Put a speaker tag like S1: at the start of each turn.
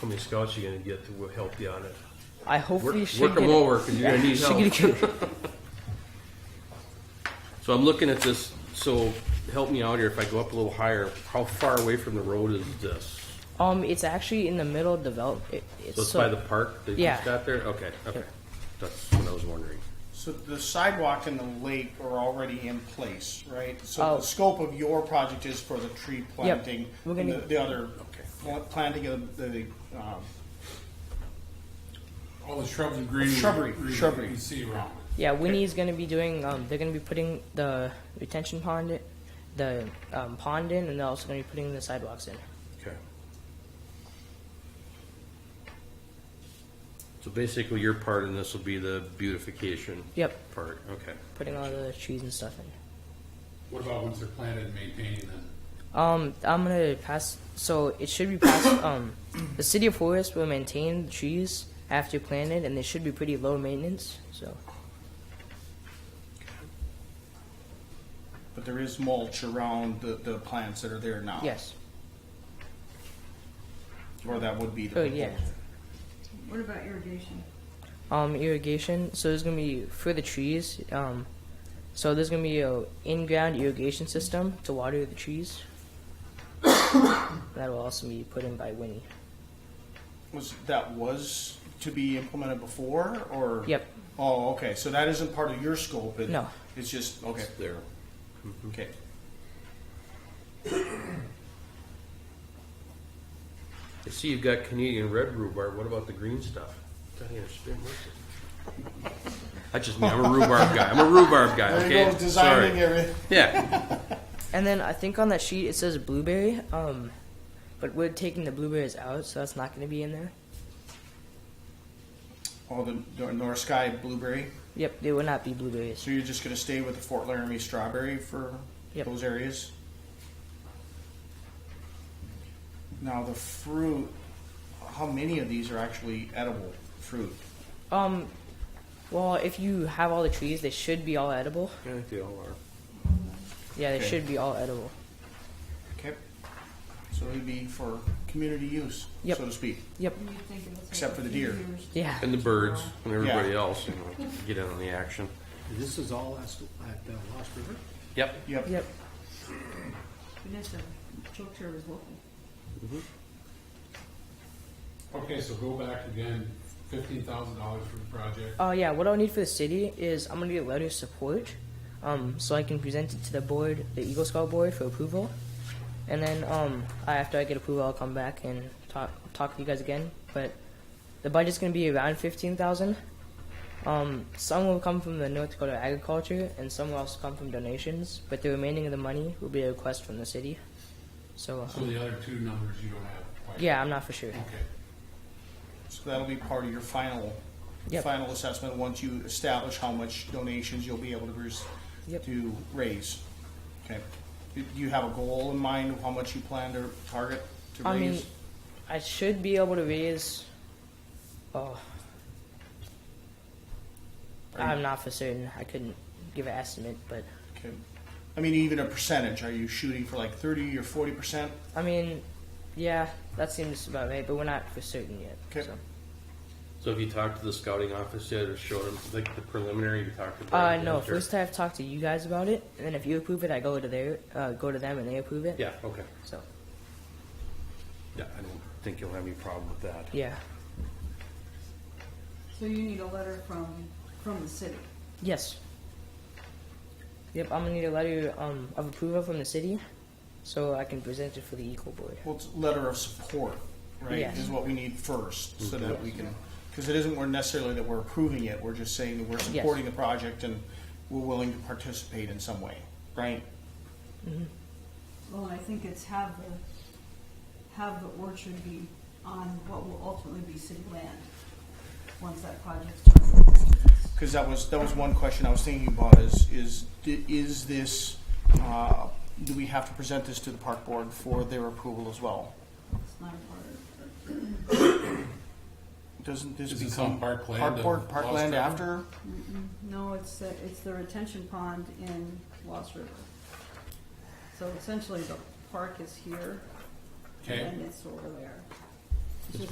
S1: How many scouts you gonna get that will help you on it?
S2: I hope
S3: Work,
S2: we
S3: work
S2: should
S3: them
S2: get-
S3: over because you're gonna need
S2: should get-
S3: help. So I'm looking at this, so help me out here, if I go up a little higher, how far away from the road is this?
S2: um, it's actually in the middle of develop. It, it's
S3: So it's
S2: so-
S3: by the park that you
S2: yeah.
S3: just got there? Okay, okay. That's what I was wondering.
S4: So the sidewalk and the lake are already in place, right? So
S2: Oh.
S4: the scope of your project is for the tree planting
S2: We're
S4: and the,
S2: gonna-
S4: the other pl- planting of the um,
S5: All the shrubs and greenery.
S4: Shrubbery,
S5: greenery
S4: shrubbery.
S5: You see around it.
S2: yeah, Winnie's gonna be doing. Um, they're gonna be putting the retention pond, in, the um, pond in, and they're also gonna be putting the sidewalks in.
S3: Okay. So basically, your part in this will be the beautification
S2: Yep,
S3: part, okay.
S2: putting all the trees and stuff in.
S5: What about once they're planted and maintained then?
S2: Um, I'm gonna pass. So it should be passed. um, the city of Forest will maintain the trees after planted, and they should be pretty low maintenance. So
S4: but there is mulch around the, the plants that are there now.
S2: yes,
S4: Or that would be the
S2: Oh, yeah.
S4: proposal.
S6: What about irrigation?
S2: um, irrigation. So there's gonna be for the trees. Um, so there's gonna be a in-ground irrigation system to water the trees. that will also be put in by Winnie.
S4: Was that was to be implemented before or
S2: Yep.
S4: Oh, okay. So that isn't part of your scope. It,
S2: No.
S4: It's just okay.
S3: There. Mm-hmm.
S4: Okay.
S3: I see you've got Canadian red rhubarb, what about the green stuff? Don't understand what's it? That's just me, I'm a rhubarb guy, I'm a rhubarb guy,
S4: There
S3: okay?
S4: you go, designing
S3: Sorry.
S4: everything.
S3: Yeah,
S2: And then I think on that sheet it says blueberry. Um, but we're taking the blueberries out, so that's not gonna be in there.
S4: All Oh, the Nor- North Sky blueberry.
S2: Yep, they will not be blueberries.
S4: So you're just going to stay with the Fort Laramie strawberry for
S2: Yep.
S4: those areas? Now, the fruit, how many of these are actually edible fruit?
S2: Um, well, if you have all the trees, they should be all edible.
S3: Yeah, they all are.
S2: Yeah, they
S4: Okay.
S2: should be all edible.
S4: Okay. So it'd be for community use,
S2: Yep.
S4: so to speak.
S2: Yep.
S6: You think it looks like
S4: Except for the deer.
S6: deer's-
S2: Yeah.
S3: and the birds, and everybody
S4: Yeah.
S3: else, you know, get in on the action.
S7: This is all at at, uh, Lost River?
S3: Yep,
S4: Yep.
S2: Yep.
S6: Vanessa, Chokeshire was local.
S5: Okay, so go back again, fifteen thousand dollars for the project.
S2: Uh, yeah. What I'll need for the city is I'm gonna get a letter of support, um, so I can present it to the board, the Eagle Scout board, for approval. And then um, I, after I get approval, I'll come back and talk talk to you guys again. But the budget's gonna be around fifteen thousand. Um, some will come from the North Dakota Agriculture, and some will also come from donations. But the remaining of the money will be a request from the city. So. um,
S5: So the other two numbers you don't have quite.
S2: Yeah, I'm not for sure.
S5: Okay.
S4: So that'll be part of your final,
S2: Yep.
S4: final assessment, once you establish how much donations you'll be able to, res-
S2: Yep.
S4: to raise. Okay. Do you have a goal in mind of how much you plan to target to
S2: I
S4: raise?
S2: mean, I should be able to raise. Oh, I'm not for certain. I couldn't give an estimate, but
S4: Okay. I mean, even a percentage, are you shooting for like thirty or forty percent?
S2: I mean, yeah, that seems about right. But we're not for certain yet.
S4: Okay.
S2: so.
S3: so have you talked to the scouting office yet, or showed them, like, the preliminary, you talked to?
S2: Uh,
S3: them,
S2: no.
S3: or-
S2: First, I have talked to you guys about it, and then if you approve it, I go to their, uh, go to them, and they approve it.
S3: Yeah, okay,
S2: So,
S3: yeah, I don't think you'll have any problem with that.
S2: yeah.
S6: So you need a letter from, from the city.
S2: Yes. Yep. I'm gonna need a letter um, of approval from the city, so I can present it for the equal board.
S4: Well, it's letter of support, right,
S2: Yes.
S4: is what we need first, so that we can, because it isn't we're necessarily that we're approving it, we're just saying that we're supporting the project and we're willing to participate in some way, right?
S6: Well, and I think it's have the, have the orchard be on what will ultimately be city land, once that project's done.
S4: Because that was, that was one question I was thinking about is, is, is this, uh, do we have to present this to the park board for their approval as well?
S6: It's not a part of.
S4: Doesn't this
S5: Is this
S4: become
S5: on parkland
S4: park
S5: of
S4: board,
S5: Lost
S4: parkland
S5: River?
S4: after?
S6: No, it's, the- it's the retention pond in Lost River. So essentially, the park is here,
S5: Okay,
S6: and it's over there.